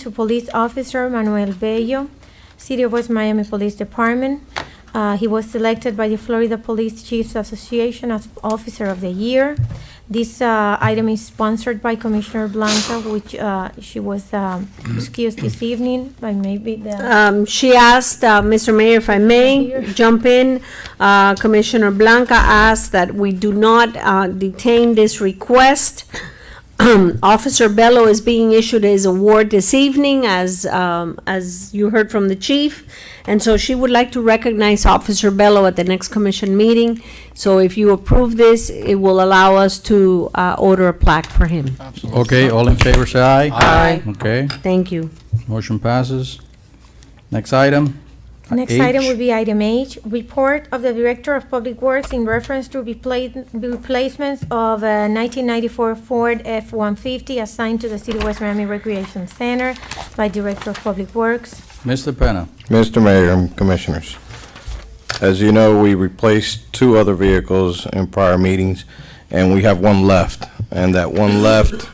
to Police Officer Manuel Bello, City of West Miami Police Department. Uh, He was selected by the Florida Police Chiefs Association as Officer of the Year. This uh, item is sponsored by Commissioner Blanca, which uh, she was um, excused this evening by maybe the, Um, She asked, uh, Mr. Mayor, if I may jump in, uh, Commissioner Blanca asked that we do not uh, detain this request. Officer Bello is being issued his award this evening, as, um, as you heard from the chief. And so she would like to recognize Officer Bello at the next commission meeting. So if you approve this, it will allow us to uh, order a plaque for him. Okay, all in favor, say aye. Aye. Okay, Thank you. motion passes. Next item. next item H. would be item H, report of the Director of Public Works in reference to repla- replacements of a 1994 Ford F-150 assigned to the City of West Miami Recreation Center by Director of Public Works. Mr. Penna, Mr. Mayor and Commissioners, as you know, we replaced two other vehicles in prior meetings, and we have one left. And that one left,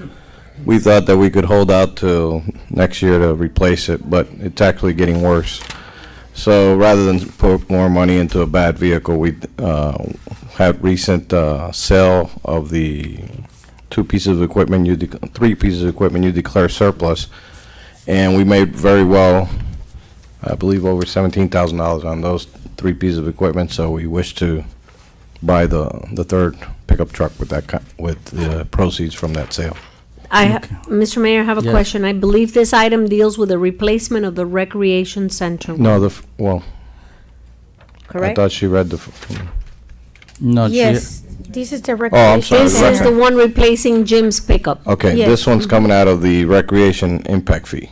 we thought that we could hold out till next year to replace it, but it's actually getting worse. So rather than put more money into a bad vehicle, we uh, had recent uh, sale of the two pieces of equipment, you, dec- three pieces of equipment you declare surplus, and we made very well I believe over seventeen thousand dollars on those three pieces of equipment, so we wish to buy the, the third pickup truck with that, co- with the proceeds from that sale. I, ha- Mr. Mayor, I have a Yes. question. I believe this item deals with the replacement of the recreation center, No, the, f- well, I correct? thought she read the, f- not yet. Yes, this is the Oh, I'm Recreation sorry, This Center. is the one replacing Jim's pickup. okay, Yes. this one's coming out of the recreation impact fee.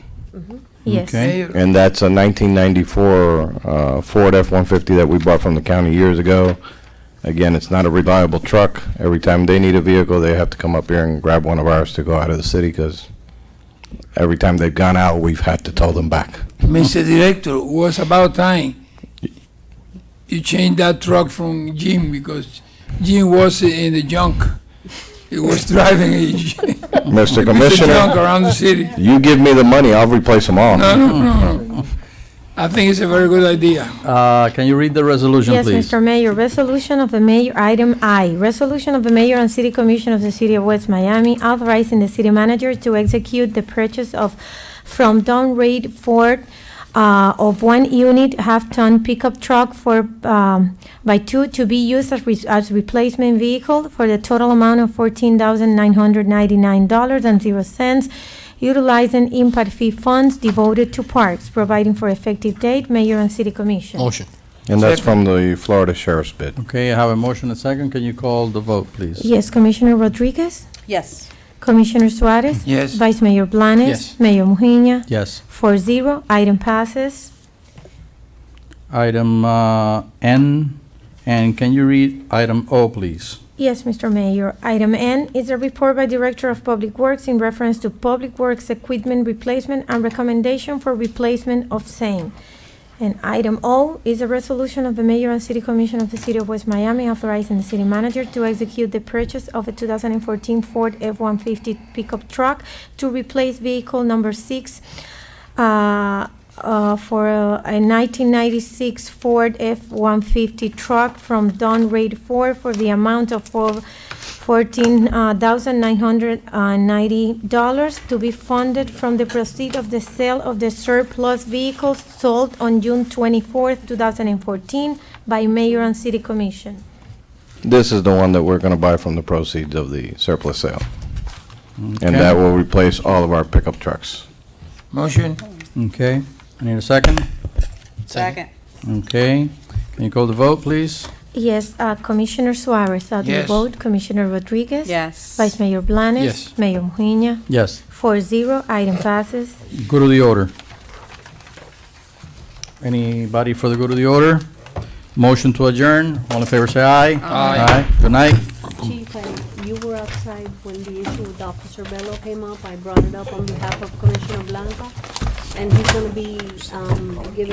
Yes, Okay, And that's a nineteen ninety-four, uh, Ford F-150 that we bought from the county years ago. Again, it's not a reliable truck. Every time they need a vehicle, they have to come up here and grab one of ours to go out of the city, because every time they've gone out, we've had to tow them back. Mr. Director, it was about time you changed that truck from Jim because Jim was in the junk. He was driving a j- Mr. the junk Commissioner, around the city. you give me the money, I'll replace them all. No, no, no, no. I think it's a very good idea. uh, can you read the resolution, yes, please? Mr. Mayor, resolution of the mayor, item I, resolution of the mayor and city commission of the city of West Miami authorizing the city manager to execute the purchase of from Don Reed Ford uh, of one unit half-ton pickup truck for, um, by two to be used as re- as replacement vehicle for the total amount of fourteen thousand nine hundred ninety-nine dollars and zero cents utilizing impact fee funds devoted to parks, providing for effective date, mayor and city commission. Motion. And that's from the Florida Sheriff's bid. Okay, I have a motion and second. Can you call the vote, please? Yes, Commissioner Rodriguez? yes, Commissioner Suarez? Yes. Vice Mayor Blanes? Yes. Mayor Mujina? Yes. Four zero, item passes. Item uh, N, and can you read item O, please? Yes, Mr. Mayor. Item N is a report by Director of Public Works in reference to Public Works equipment replacement and recommendation for replacement of same. And item O is a resolution of the Mayor and City Commission of the City of West Miami authorizing the city manager to execute the purchase of a 2014 Ford F-150 pickup truck to replace vehicle number six uh, uh, for a a 1996 Ford F-150 truck from Don Reed Ford for the amount of four- uh, $14,990 uh, to be funded from the proceeds of the sale of the surplus vehicles sold on June 24th, 2014 by Mayor and City Commission. This is the one that we're gonna buy from the proceeds of the surplus sale. And Okay. that will replace all of our pickup trucks. Motion? Okay, I need a second. second, Okay, can you call the vote, please? Yes, uh, Commissioner Suarez, how do you Yes. vote? Commissioner Rodriguez? yes. Vice Mayor Blanes? Yes. Mayor Mujina? Yes. Four zero, item passes. Go to the order. Anybody for the go to the order? Motion to adjourn. All in favor, say aye. Aye. Good night. Chief, and you were outside when the issue with Officer Bello came up. I brought it up on behalf of Commissioner Blanca, and he's gonna be, um, giving